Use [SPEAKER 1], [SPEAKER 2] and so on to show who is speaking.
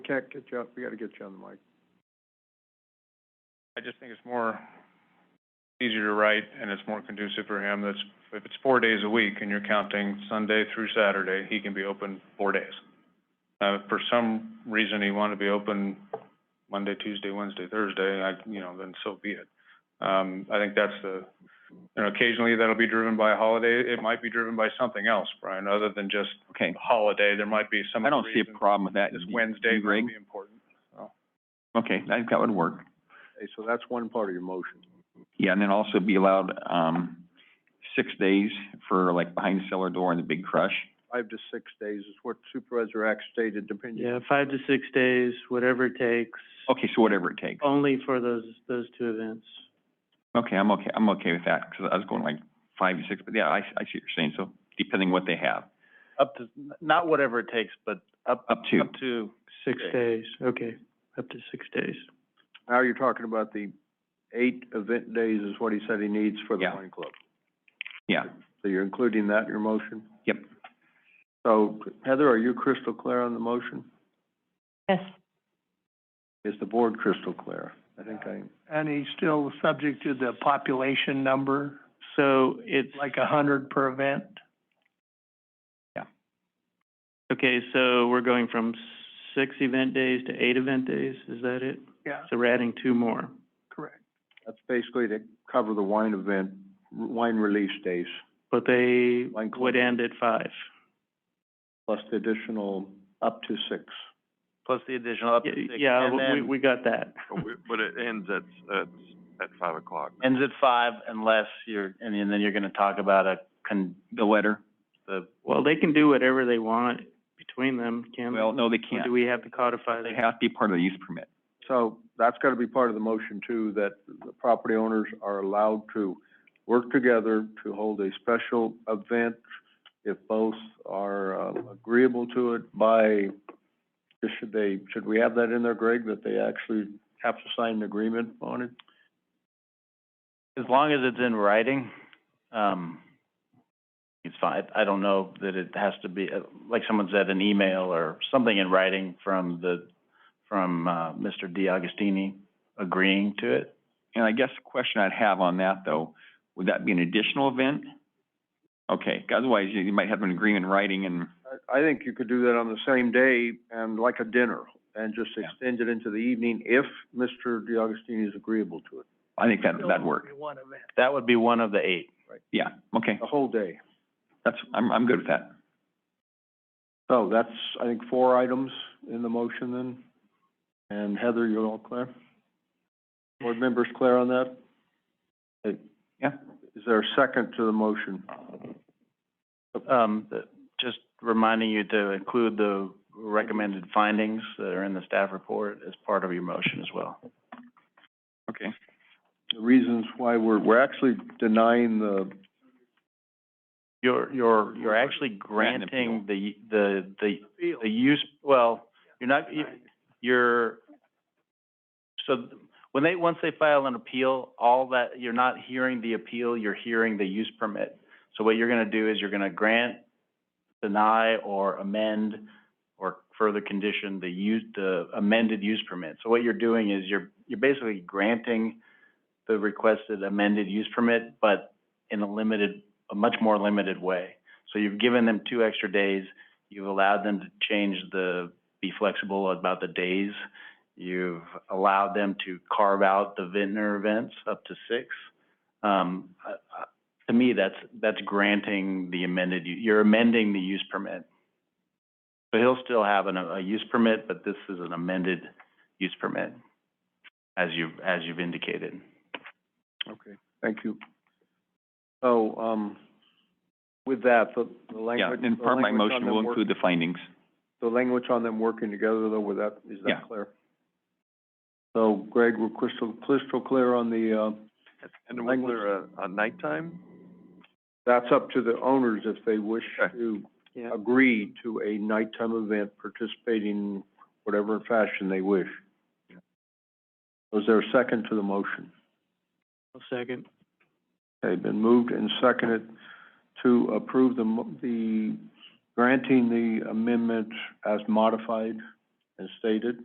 [SPEAKER 1] check, get you up, we gotta get you on the mic.
[SPEAKER 2] I just think it's more, easier to write, and it's more conducive for him. That's, if it's four days a week and you're counting Sunday through Saturday, he can be open four days. Uh, if for some reason he wanted to be open Monday, Tuesday, Wednesday, Thursday, I, you know, then so be it. Um, I think that's the, you know, occasionally that'll be driven by a holiday. It might be driven by something else, Brian, other than just
[SPEAKER 3] Okay,
[SPEAKER 2] a holiday. There might be some
[SPEAKER 3] I don't
[SPEAKER 2] other
[SPEAKER 3] see
[SPEAKER 2] reason.
[SPEAKER 3] a problem with that.
[SPEAKER 2] This
[SPEAKER 3] You-
[SPEAKER 2] Wednesday
[SPEAKER 3] you,
[SPEAKER 2] might
[SPEAKER 3] Greg?
[SPEAKER 2] be important.
[SPEAKER 3] Okay, I think that would work.
[SPEAKER 1] Okay, so that's one part of your motion.
[SPEAKER 3] Yeah, and then also be allowed, um, six days for like behind cellar door and the big crush.
[SPEAKER 1] Five to six days is what Supervisor Axe stated, depending.
[SPEAKER 4] Yeah, five to six days, whatever it takes,
[SPEAKER 3] Okay, so whatever it takes.
[SPEAKER 4] only for those, those two events.
[SPEAKER 3] Okay, I'm okay, I'm okay with that, 'cause I was going like five to six, but yeah, I, I see what you're saying, so depending what they have,
[SPEAKER 5] Up to, not whatever it takes, but up,
[SPEAKER 3] up to.
[SPEAKER 5] up to.
[SPEAKER 4] Six
[SPEAKER 5] Okay.
[SPEAKER 4] days, okay, up to six days.
[SPEAKER 1] Now you're talking about the eight event days is what he said he needs for the
[SPEAKER 3] Yeah.
[SPEAKER 1] wine club.
[SPEAKER 3] Yeah,
[SPEAKER 1] So you're including that in your motion?
[SPEAKER 3] Yep.
[SPEAKER 1] So Heather, are you crystal clear on the motion?
[SPEAKER 6] Yes.
[SPEAKER 1] Is the board crystal clear? I think I,
[SPEAKER 7] And he's still subject to the population number,
[SPEAKER 4] So it's,
[SPEAKER 7] like a hundred per event?
[SPEAKER 4] okay, so we're going from six event days to eight event days, is that it?
[SPEAKER 7] Yeah,
[SPEAKER 4] So we're adding two more.
[SPEAKER 7] correct.
[SPEAKER 1] that's basically to cover the wine event, wine release days,
[SPEAKER 4] But they
[SPEAKER 1] Wine club.
[SPEAKER 4] would end at five.
[SPEAKER 1] plus the additional up to six.
[SPEAKER 5] Plus the additional up to
[SPEAKER 4] Yeah,
[SPEAKER 5] six.
[SPEAKER 4] Yeah,
[SPEAKER 5] and
[SPEAKER 4] we,
[SPEAKER 5] then
[SPEAKER 4] we got that.
[SPEAKER 8] But it ends at, at, at five o'clock.
[SPEAKER 5] Ends at five unless you're, and then you're gonna talk about a con,
[SPEAKER 3] the letter,
[SPEAKER 5] the,
[SPEAKER 4] Well, they can do whatever they want between them, can they?
[SPEAKER 3] well, no, they
[SPEAKER 4] Or
[SPEAKER 3] can't,
[SPEAKER 4] do we have to codify
[SPEAKER 3] they
[SPEAKER 4] that?
[SPEAKER 3] have to be part of the use permit.
[SPEAKER 1] So that's gotta be part of the motion too, that the property owners are allowed to work together to hold a special event if both are um, agreeable to it by, should they, should we have that in there, Greg, that they actually have to sign an agreement on it?
[SPEAKER 5] as long as it's in writing, um, it's fine. I don't know that it has to be, uh, like someone said, an email or something in writing from the, from, uh, Mr. DiAgostini agreeing to it.
[SPEAKER 3] And I guess the question I'd have on that though, would that be an additional event? Okay, 'cause otherwise you you might have an agreement in writing and,
[SPEAKER 1] I, I think you could do that on the same day and like a dinner and just
[SPEAKER 3] Yeah.
[SPEAKER 1] extend it into the evening if Mr. DiAgostini is agreeable to it,
[SPEAKER 3] I think that, that'd work,
[SPEAKER 7] One event.
[SPEAKER 5] That would be one of the eight.
[SPEAKER 3] yeah, okay,
[SPEAKER 1] the whole day.
[SPEAKER 3] that's, I'm, I'm good with that.
[SPEAKER 1] So that's, I think, four items in the motion then. And Heather, you're all clear? Board members clear on that? Hey,
[SPEAKER 3] Yeah.
[SPEAKER 1] Is there a second to the motion?
[SPEAKER 5] Um, th- just reminding you to include the recommended findings that are in the staff report as part of your motion as well.
[SPEAKER 3] Okay.
[SPEAKER 1] The reasons why we're, we're actually denying the,
[SPEAKER 5] You're, you're, you're actually
[SPEAKER 3] Grant an appeal.
[SPEAKER 5] granting the, the, the, the use, well, you're not, you- you're, so th- when they, once they file an appeal, all that, you're not hearing the appeal, you're hearing the use permit. So what you're gonna do is you're gonna grant, deny, or amend, or further condition the use, the amended use permit. So what you're doing is you're, you're basically granting the requested amended use permit, but in a limited, a much more limited way. So you've given them two extra days, you've allowed them to change the, be flexible about the days. You've allowed them to carve out the vintner events up to six. Um, I- I- to me, that's, that's granting the amended, u- you're amending the use permit. So he'll still have an, a use permit, but this is an amended use permit, as you've, as you've indicated.
[SPEAKER 1] okay, thank you. So, um, with that, the, the
[SPEAKER 3] Yeah,
[SPEAKER 1] language.
[SPEAKER 3] and
[SPEAKER 1] the
[SPEAKER 3] part of my
[SPEAKER 1] language on
[SPEAKER 3] motion
[SPEAKER 1] them
[SPEAKER 3] will
[SPEAKER 1] work-
[SPEAKER 3] include the findings.
[SPEAKER 1] The language on them working together though, with that, is
[SPEAKER 3] Yeah.
[SPEAKER 1] that clear? So Greg, we're crystal, crystal clear on the, uh,
[SPEAKER 8] And was
[SPEAKER 1] Language.
[SPEAKER 8] there a, a nighttime?
[SPEAKER 1] That's up to the owners if they wish
[SPEAKER 8] Okay.
[SPEAKER 1] to
[SPEAKER 4] Yeah.
[SPEAKER 1] agree to a nighttime event participating whatever fashion they wish. Was there a second to the motion?
[SPEAKER 4] One second.
[SPEAKER 1] Okay, been moved and seconded to approve the, mo- the, granting the amendment as modified and stated.